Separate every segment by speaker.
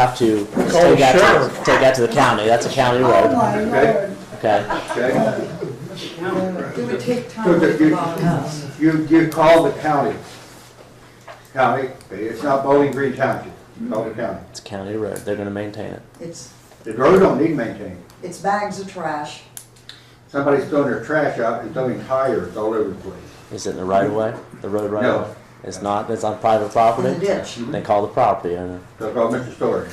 Speaker 1: have to
Speaker 2: Call
Speaker 1: take that,
Speaker 2: sheriff.
Speaker 1: to, take that to the county, that's a county
Speaker 3: Oh,
Speaker 1: road,
Speaker 3: my lord.
Speaker 1: okay?
Speaker 4: okay?
Speaker 3: It would take
Speaker 4: So
Speaker 3: time
Speaker 4: that
Speaker 3: to
Speaker 4: you-
Speaker 3: log us.
Speaker 4: You, you call the county. County, eh, it's not Bowling Green Township, you call the county.
Speaker 1: It's a county road, they're gonna maintain it.
Speaker 3: It's,
Speaker 4: The road don't need maintaining.
Speaker 3: it's bags of trash.
Speaker 4: Somebody's throwing their trash out and throwing tires all over the place.
Speaker 1: Is it in the right of way, the road right
Speaker 4: No.
Speaker 1: of way? It's not, it's on private property?
Speaker 3: In the ditch.
Speaker 1: Then call the property owner.
Speaker 4: So call Mr. Story,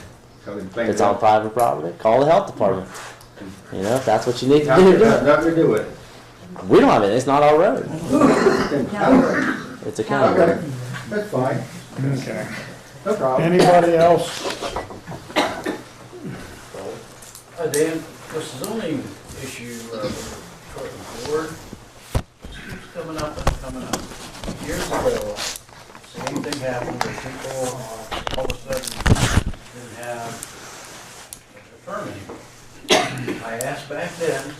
Speaker 4: tell him
Speaker 1: If
Speaker 4: clean
Speaker 1: it's
Speaker 4: it
Speaker 1: on
Speaker 4: up.
Speaker 1: private property, call the health department. You know, if that's what you need to do,
Speaker 4: Nothing
Speaker 1: do it.
Speaker 4: nothing to do with it.
Speaker 1: We don't have it, it's not our road,
Speaker 4: Then-
Speaker 3: Now,
Speaker 1: it's a county road.
Speaker 4: Okay, that's fine,
Speaker 2: Okay.
Speaker 4: no problem.
Speaker 2: Anybody else?
Speaker 5: Hi, Dan. This zoning issue, uh, for the board, keeps coming up and coming up. Years ago, same thing happened, where people uh, all of a sudden didn't have a permit. I asked back then,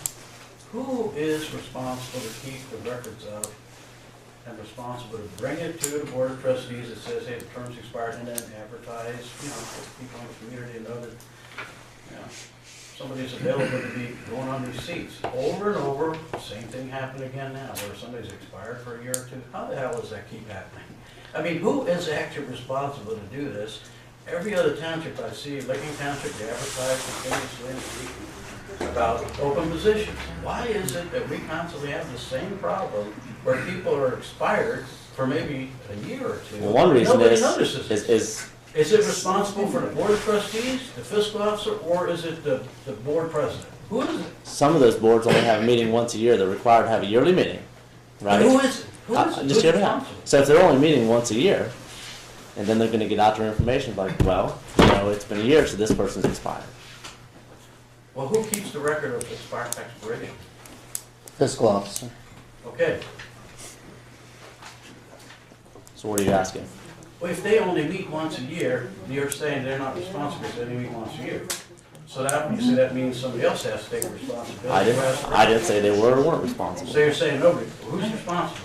Speaker 5: who is responsible to keep the records of and responsible to bring it to the board of trustees that says, hey, the term's expired, and then advertise, you know, for people in the community to know that yeah. Somebody's available to be going on these seats. Over and over, same thing happened again now, where somebody's expired for a year or two. How the hell does that keep happening? I mean, who is actually responsible to do this? Every other township I see, Licking Township, they advertise continuously every week about open positions. Why is it that we constantly have the same problem where people are expired for maybe a year or two?
Speaker 1: Well, one reason
Speaker 5: Nobody
Speaker 1: is,
Speaker 5: notices
Speaker 1: is,
Speaker 5: it.
Speaker 1: is,
Speaker 5: Is it responsible for the board of trustees, the fiscal officer, or is it the, the board president? Who is it?
Speaker 1: some of those boards only have a meeting once a year, they're required to have a yearly meeting, right?
Speaker 5: And who is it? Who
Speaker 1: Uh,
Speaker 5: is it?
Speaker 1: Just
Speaker 5: Who's
Speaker 1: hear me out.
Speaker 5: responsible?
Speaker 1: So if they're only meeting once a year, and then they're gonna get out their information, like, well, you know, it's been a year, so this person's expired.
Speaker 5: Well, who keeps the record of expired expiration?
Speaker 1: Fiscal officer.
Speaker 5: Okay,
Speaker 1: So what are you asking?
Speaker 5: well, if they only meet once a year, and you're saying they're not responsible, they only meet once a year. So that, obviously, that means somebody else has to take responsibility.
Speaker 1: I didn't,
Speaker 5: Whereas-
Speaker 1: I didn't say they were or weren't responsible.
Speaker 5: So you're saying nobody, who's responsible?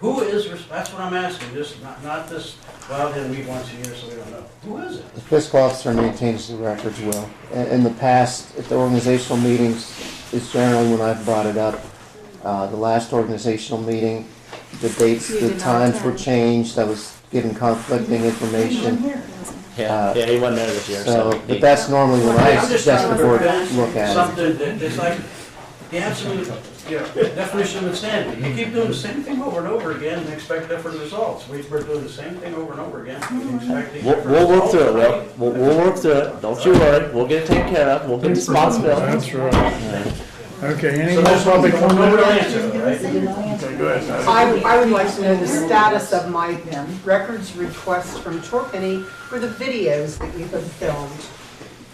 Speaker 5: Who is, res- that's what I'm asking, just not, not this, well, they meet once a year, so we don't know. Who is it?
Speaker 6: The fiscal officer maintains the records well. In in the past, at the organizational meetings, is generally when I've brought it up. Uh, The last organizational meeting, the dates,
Speaker 7: You
Speaker 6: the
Speaker 7: did not
Speaker 6: times were
Speaker 7: attend.
Speaker 6: changed, I was given conflicting information.
Speaker 1: Yeah,
Speaker 6: Uh,
Speaker 1: yeah, he wasn't there this year, so.
Speaker 6: So,
Speaker 1: he-
Speaker 6: but that's normally when I
Speaker 5: I'm just
Speaker 6: suggest the board
Speaker 5: trying to
Speaker 6: look at it.
Speaker 5: something that, that's like, the absolute, you know, definition of insanity. You keep doing the same thing over and over again and expect different results. We, we're doing the same thing over and over again and expecting
Speaker 1: We'll,
Speaker 5: different
Speaker 1: we'll work
Speaker 5: results.
Speaker 1: through it, Will. We'll, we'll work through it. Don't you worry. We'll get it taken care of. We'll get responsibility.
Speaker 2: That's right. Okay, any
Speaker 5: So
Speaker 2: more
Speaker 5: that's why we
Speaker 2: public
Speaker 5: come over to
Speaker 2: comment?
Speaker 5: answer, right?
Speaker 2: Okay, go ahead.
Speaker 8: I, I would like to know the status of my records request from Torpenny for the videos that you have filmed.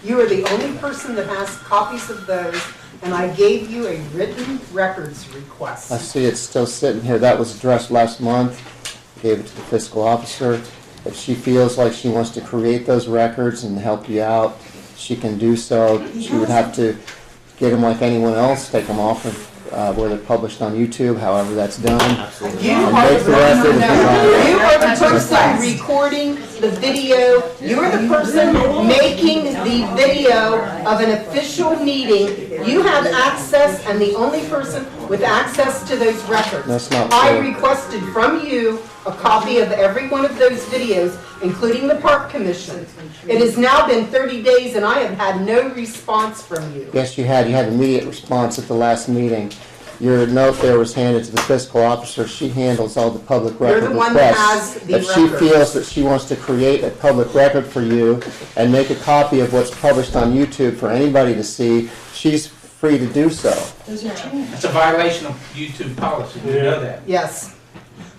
Speaker 8: You are the only person that has copies of those, and I gave you a written records
Speaker 6: I
Speaker 8: request.
Speaker 6: see it's still sitting here, that was addressed last month, gave it to the fiscal officer. If she feels like she wants to create those records and help you out, she can do so. She would have to get them like anyone else, take them off of, uh, where they're published on YouTube, however that's done.
Speaker 8: You
Speaker 6: And
Speaker 8: are
Speaker 6: make
Speaker 8: the
Speaker 6: the record if
Speaker 8: person,
Speaker 6: you want.
Speaker 8: no, you are the person recording the video, you are the person making the video of an official meeting. You have access, and the only person with access to those records.
Speaker 6: That's not
Speaker 8: I
Speaker 6: true.
Speaker 8: requested from you a copy of every one of those videos, including the park commission. It has now been 30 days and I have had no response from you.
Speaker 6: Yes, you had, you had immediate response at the last meeting. Your note there was handed to the fiscal officer, she handles all the public
Speaker 8: You're
Speaker 6: record
Speaker 8: the one that
Speaker 6: requests.
Speaker 8: has the
Speaker 6: If she
Speaker 8: record.
Speaker 6: feels that she wants to create a public record for you and make a copy of what's published on YouTube for anybody to see, she's free to do so.
Speaker 9: It's a violation of YouTube policy, you know that.
Speaker 8: Yes.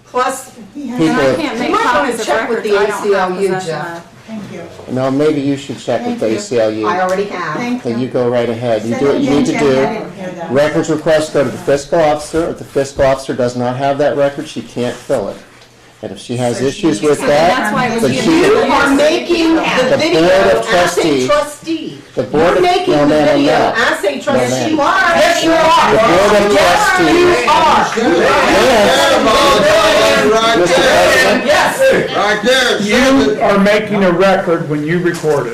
Speaker 8: Plus,
Speaker 7: And I
Speaker 6: People,
Speaker 7: can't make
Speaker 8: You might wanna
Speaker 7: copies of
Speaker 8: check with
Speaker 7: records
Speaker 8: the
Speaker 7: I don't have
Speaker 8: ACLU,
Speaker 7: possession
Speaker 8: Jeff.
Speaker 7: of.
Speaker 3: Thank you.
Speaker 6: no, maybe you should check with the
Speaker 8: I
Speaker 6: ACLU.
Speaker 8: already have.
Speaker 3: Thank
Speaker 6: Then you go right ahead, you do what you need to do.
Speaker 3: do.
Speaker 6: Records requests go to the fiscal officer. If the fiscal officer does not have that record, she can't fill it. And if she has issues with
Speaker 7: So that's why
Speaker 6: that,
Speaker 7: it
Speaker 6: then
Speaker 7: was
Speaker 8: You
Speaker 6: she,
Speaker 7: unanimous.
Speaker 8: are making the
Speaker 6: The
Speaker 8: video
Speaker 6: Board of
Speaker 8: as a
Speaker 6: Trustees-
Speaker 8: trustee.
Speaker 6: the board,
Speaker 8: You're
Speaker 6: of-
Speaker 8: making
Speaker 6: no,
Speaker 8: the
Speaker 6: no, no,
Speaker 8: video
Speaker 6: no.
Speaker 8: as a trustee.
Speaker 6: ma'am.
Speaker 8: Yes, you are.
Speaker 6: The board of
Speaker 8: Yes,
Speaker 6: trustees.
Speaker 8: you are.
Speaker 6: Yes, Mr. President.
Speaker 8: Yes.
Speaker 2: You are making a record when you record it.